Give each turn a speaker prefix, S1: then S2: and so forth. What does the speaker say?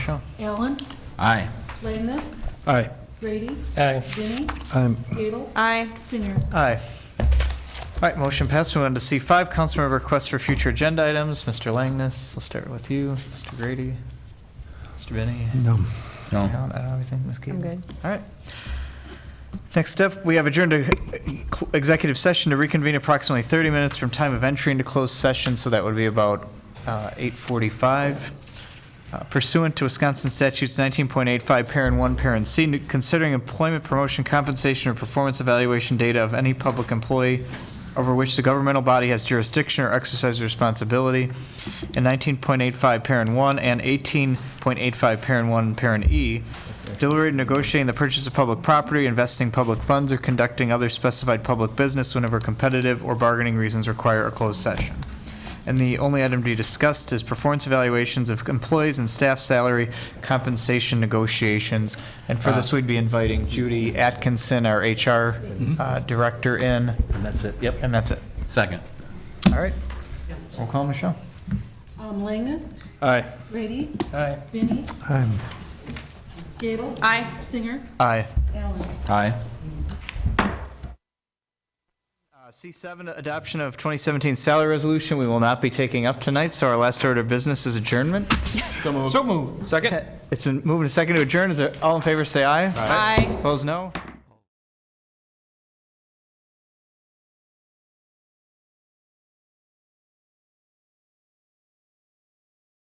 S1: Allen,
S2: Aye.
S1: Langness,
S3: Aye.
S1: Grady,
S3: Aye.
S1: Ginny,
S4: I'm
S1: Gable,
S5: Aye.
S1: Singer.
S6: Aye. All right, motion passed. We on to C5, council member requests for future agenda items. Mr. Langness, we'll start with you. Mr. Grady, Mr. Benny.
S4: no.
S2: No.
S6: I don't have anything, Ms. Keating?
S5: I'm good.
S6: All right. Next up, we have adjourned to executive session to reconvene approximately 30 minutes from time of entry into closed session, so that would be about uh, 8:45. Uh, Pursuant to Wisconsin statutes 19.85, parent 1, parent C, considering employment promotion compensation or performance evaluation data of any public employee over which the governmental body has jurisdiction or exercises responsibility, and 19.85, parent 1, and 18.85, parent 1, parent E, deliberating negotiating the purchase of public property, investing public funds, or conducting other specified public business whenever competitive or bargaining reasons require a closed session. And the only item to be discussed is performance evaluations of employees and staff salary compensation negotiations. And for this, we'd be inviting Judy Atkinson, our HR uh, Director, in,
S2: And that's it? Yep.
S6: and that's it.
S2: Second.
S6: All right. We'll call Michelle.
S1: Um, Langness,
S3: Aye.
S1: Grady,
S3: Aye.
S1: Vinnie,
S4: I'm
S1: Gable.
S5: Aye.
S1: Singer,
S6: Aye.
S1: Allen.
S2: Aye.
S6: Uh, C7, adoption of 2017 salary resolution, we will not be taking up tonight, so our last order of business is adjournment.
S3: So moved. Second?
S6: It's been moved and seconded to adjourn. Is it, all in favor, say aye.
S5: Aye.
S6: Opposed, no.